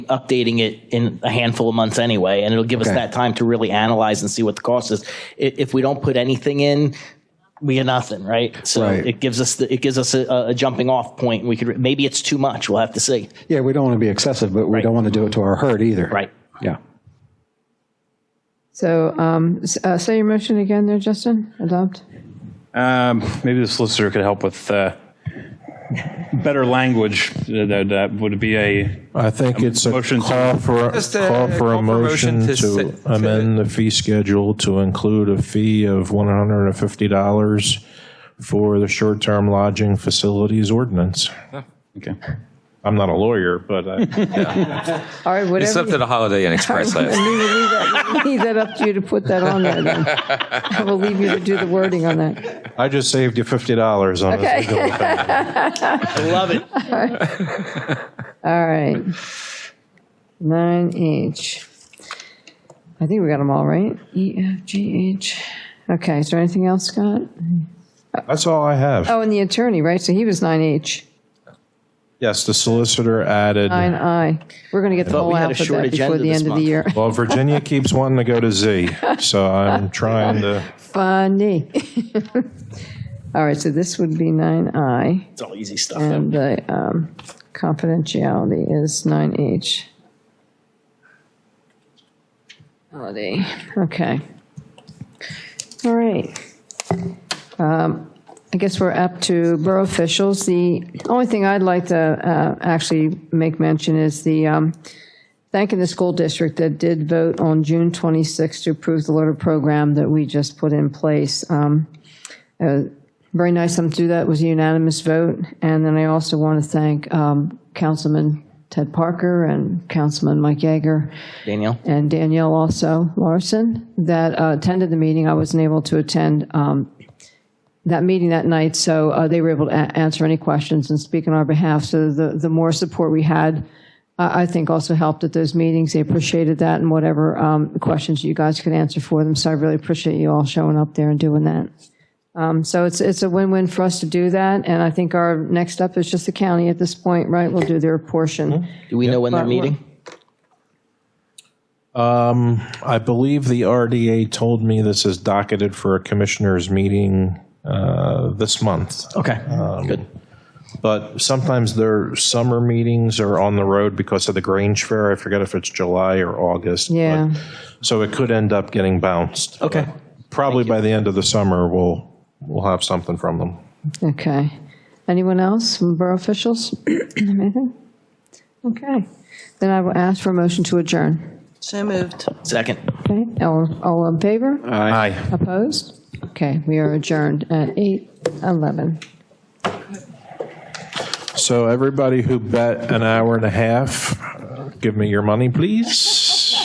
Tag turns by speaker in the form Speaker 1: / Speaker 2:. Speaker 1: updating it in a handful of months anyway, and it'll give us
Speaker 2: Okay.
Speaker 1: that time to really analyze and see what the cost is. I- If we don't put anything in, we get nothing, right? So
Speaker 2: Right.
Speaker 1: it gives us the, it gives us a, a jumping off point. We could re- maybe it's too much. We'll have to see.
Speaker 2: Yeah, we don't want to be excessive, but we don't want to do it to our herd either.
Speaker 1: Right.
Speaker 2: Yeah.
Speaker 3: So, um, s- uh, say your motion again there, Justin, adopt.
Speaker 4: Um, maybe the solicitor could help with uh, better language. Uh, That, that would be a
Speaker 5: I think it's a
Speaker 4: motion to-
Speaker 5: call for, a-
Speaker 6: Just a
Speaker 5: call for a motion to
Speaker 6: se- to-
Speaker 5: amend the fee schedule to include a fee of $150 for the short-term lodging facilities ordinance.
Speaker 4: okay.
Speaker 5: I'm not a lawyer, but I-
Speaker 3: All right,
Speaker 6: You
Speaker 3: whatever.
Speaker 6: slept at a Holiday Inn Express
Speaker 3: I
Speaker 6: last night.
Speaker 3: mean, we'll Leave that- leave that up to you to put that on there then. I will leave you to do the wording on that.
Speaker 5: I just saved you $50 on this. legal battle.
Speaker 1: Love it.
Speaker 3: All right. Nine H. I think we got them all right. E, F, G, H. Okay, is there anything else, Scott?
Speaker 5: That's all I have.
Speaker 3: Oh, and the attorney, right? So he was nine H,
Speaker 5: Yes, the solicitor added,
Speaker 3: nine I. We're going to get the
Speaker 1: thought we
Speaker 3: whole
Speaker 1: had a short
Speaker 3: alphabet before
Speaker 1: agenda
Speaker 3: the
Speaker 1: this
Speaker 3: end of the
Speaker 1: month.
Speaker 3: year.
Speaker 5: well, Virginia keeps wanting to go to Z, so I'm trying to,
Speaker 3: Funny. All right, so this would be nine I.
Speaker 1: It's all easy stuff.
Speaker 3: And the um, confidentiality is 9H. Holiday, okay. All right. Um, I guess we're up to borough officials. The only thing I'd like to uh, actually make mention is the, um, thanking the school district that did vote on June 26th to approve the letter program that we just put in place. Um, very nice of them to do that. It was a unanimous vote. And then I also want to thank um, Councilman Ted Parker and Councilman Mike Yeager
Speaker 1: Danielle.
Speaker 3: and Danielle also Larson that uh, attended the meeting. I wasn't able to attend um, that meeting that night, so uh, they were able to a- answer any questions and speak on our behalf. So the, the more support we had, I, I think also helped at those meetings. They appreciated that and whatever um, questions you guys could answer for them. So I really appreciate you all showing up there and doing that. Um, So it's, it's a win-win for us to do that, and I think our next step is just the county at this point, right? Will do their portion.
Speaker 1: Do we know when they're
Speaker 3: But we're-
Speaker 1: meeting?
Speaker 5: I believe the RDA told me this is docketed for a commissioners meeting uh, this month.
Speaker 1: Okay. Good.
Speaker 5: But sometimes their summer meetings are on the road because of the Grange Fair. I forget if it's July or August. but-
Speaker 3: Yeah.
Speaker 5: So it could end up getting bounced.
Speaker 1: Okay.
Speaker 5: Probably by the end of the summer, we'll, we'll have something from them.
Speaker 3: Okay. Anyone else from borough officials? Anything? Okay. Then I will ask for a motion to adjourn.
Speaker 7: So moved.
Speaker 2: Um,
Speaker 1: Second.
Speaker 3: Okay, all, all in favor?
Speaker 5: Aye.
Speaker 3: Opposed? Okay, we are adjourned at 8:11.
Speaker 5: So everybody who bet an hour and a half, give me your money, please.